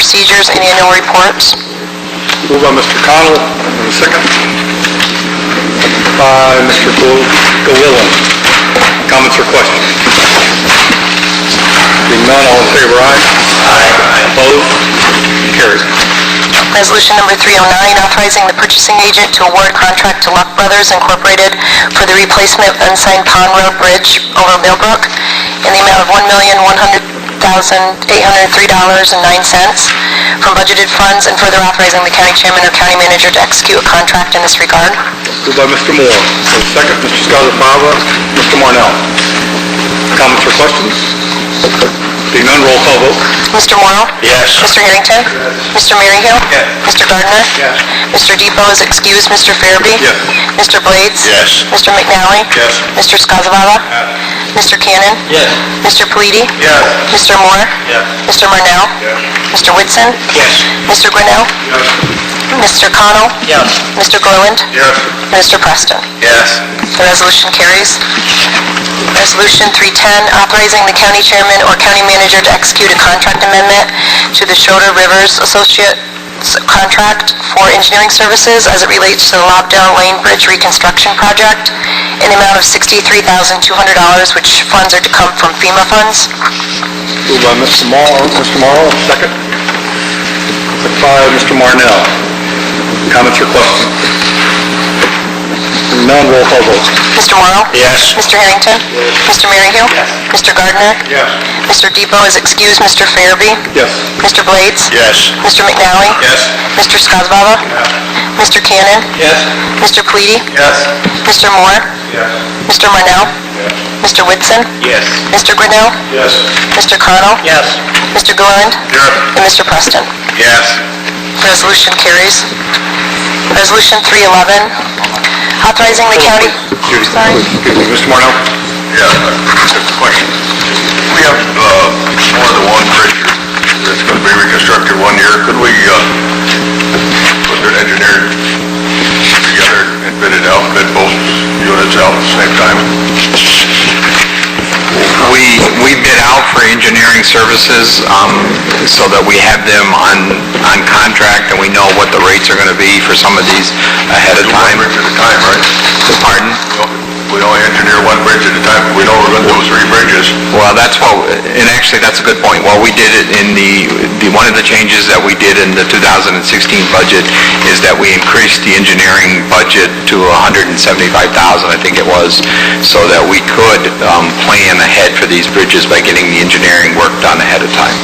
procedures and annual reports. Moved by Mr. Connell, and a second by Mr. Gillillan. Comments or questions? Being none, all in favor, aye? Aye. Opposed? Carries. Resolution number 309, authorizing the purchasing agent to award contract to Luck Brothers Incorporated for the replacement of unsigned Pond Road Bridge over Millbrook in the amount of $1,100,803.09 from budgeted funds and further authorizing the county chairman or county manager to execute a contract in this regard. Moved by Mr. Moore, and a second, Mr. Scarlett Fava, Mr. Marnell. Comments or questions? Being none, roll call vote. Mr. Morrow? Yes. Mr. Harrington? Mr. Maryhill? Yes. Mr. Gardner? Yes. Mr. Depot is excused. Mr. Farabee? Yes. Mr. Blades? Yes. Mr. McNally? Yes. Mr. Skozavala? Mr. Cannon? Yes. Mr. Pleady? Yes. Mr. Moore? Yes. Mr. Marnell? Yes. Mr. Whitson? Yes. Mr. Grinnell? Mr. Connell? Yes. Mr. Gorland? Yes. Mr. Preston? Yes. The resolution carries. Resolution 310, authorizing the county chairman or county manager to execute a contract amendment to the Schroeder Rivers Associates contract for engineering services as it relates to the Lobdell Lane Bridge reconstruction project in the amount of $63,200, which funds are to come from FEMA funds. Moved by Mr. Morrow, Mr. Morrow, second. Second by Mr. Marnell. Comments or questions? Hearing None, roll call vote. Mr. Morrow? Yes. Mr. Harrington? Mr. Maryhill? Yes. Mr. Gardner? Yes. Mr. Depot is excused. Mr. Farabee? Yes. Mr. Blades? Yes. Mr. McNally? Yes. Mr. Skozavala? Mr. Cannon? Yes. Mr. Pleady? Yes. Mr. Moore? Yes. Mr. Marnell? Mr. Whitson? Yes. Mr. Grinnell? Yes. Mr. Connell? Yes. Mr. Gilliland? Yes. And Mr. Preston. Yes. Resolution carries. Resolution 311, authorizing the county... Excuse Sorry. excuse me, Mr. Marnell? Yeah, I have a question. We have, uh, more than one bridge that's gonna be reconstructed one year. Could we, uh, put an engineer together and bid it out, bid both units out at the same time? We, we bid out for engineering services, um, so that we have them on, on contract and we know what the rates are gonna be for some of these ahead of Do one time. bridge at a time, right? Pardon? We only engineer one bridge at a time. We know we're gonna do three bridges. Well, that's what, and actually, that's a good point. Well, we did it in the, the, one of the changes that we did in the 2016 budget is that we increased the engineering budget to 175,000, I think it was, so that we could, um, plan ahead for these bridges by getting the engineering work done ahead of time.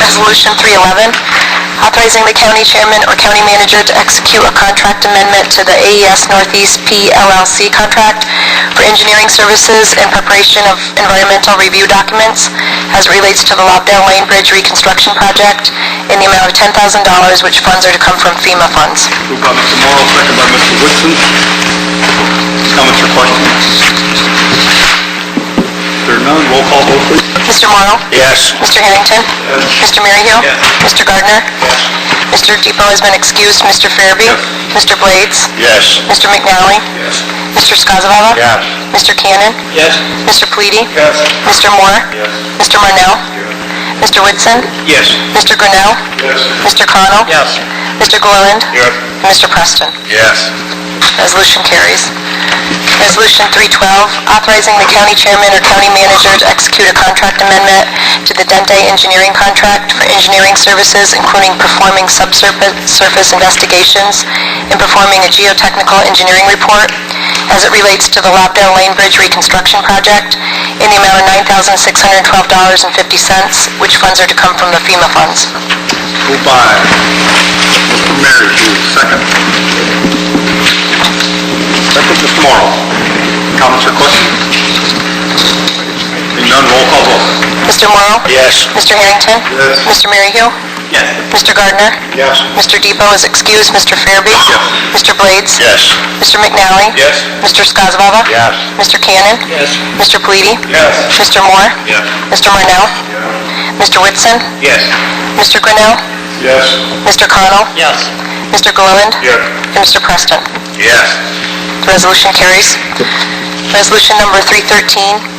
Resolution 311, authorizing the county chairman or county manager to execute a contract amendment to the AES Northeast P LLC contract for engineering services and preparation of environmental review documents as it relates to the Lobdell Lane Bridge reconstruction project in the amount of $10,000, which funds are to come from FEMA funds. Moved by Mr. Morrow, second by Mr. Woodson. Comments or questions? There are none, roll call vote, please. Mr. Morrow? Yes. Mr. Harrington? Mr. Maryhill? Yes. Mr. Gardner? Mr. Depot has been excused. Mr. Farabee? Yes. Mr. Blades? Yes. Mr. McNally? Yes. Mr. Skozavala? Yes. Mr. Cannon? Yes. Mr. Pleady? Yes. Mr. Moore? Mr. Marnell? Mr. Whitson? Yes. Mr. Grinnell? Yes. Mr. Connell? Yes. Mr. Gorland? Yes. And Mr. Preston. Yes. Resolution carries. Resolution 312, authorizing the county chairman or county manager to execute a contract amendment to the Dente Engineering Contract for engineering services, including performing subsurface investigations and performing a geotechnical engineering report as it relates to the Lobdell Lane Bridge reconstruction project in the amount of $9,612.50, which funds are to come from the FEMA funds. Moved by Mr. Merryle, second. Second, Mr. Morrow. Comments or questions? Seeing none, roll call vote. Mr. Morrow? Yes. Mr. Harrington? Yes. Mr. Maryhill? Yes. Mr. Gardner? Yes. Mr. Depot is excused. Mr. Farabee? Mr. Blades? Yes. Mr. McNally? Yes. Mr. Skozavala? Yes. Mr. Cannon? Yes. Mr. Pleady? Yes. Mr. Moore? Yes. Mr. Marnell? Mr. Whitson? Yes. Mr. Grinnell? Yes. Mr. Connell? Yes. Mr. Gilliland? Yes. And Mr. Preston. Yes. The resolution carries. Resolution number 313,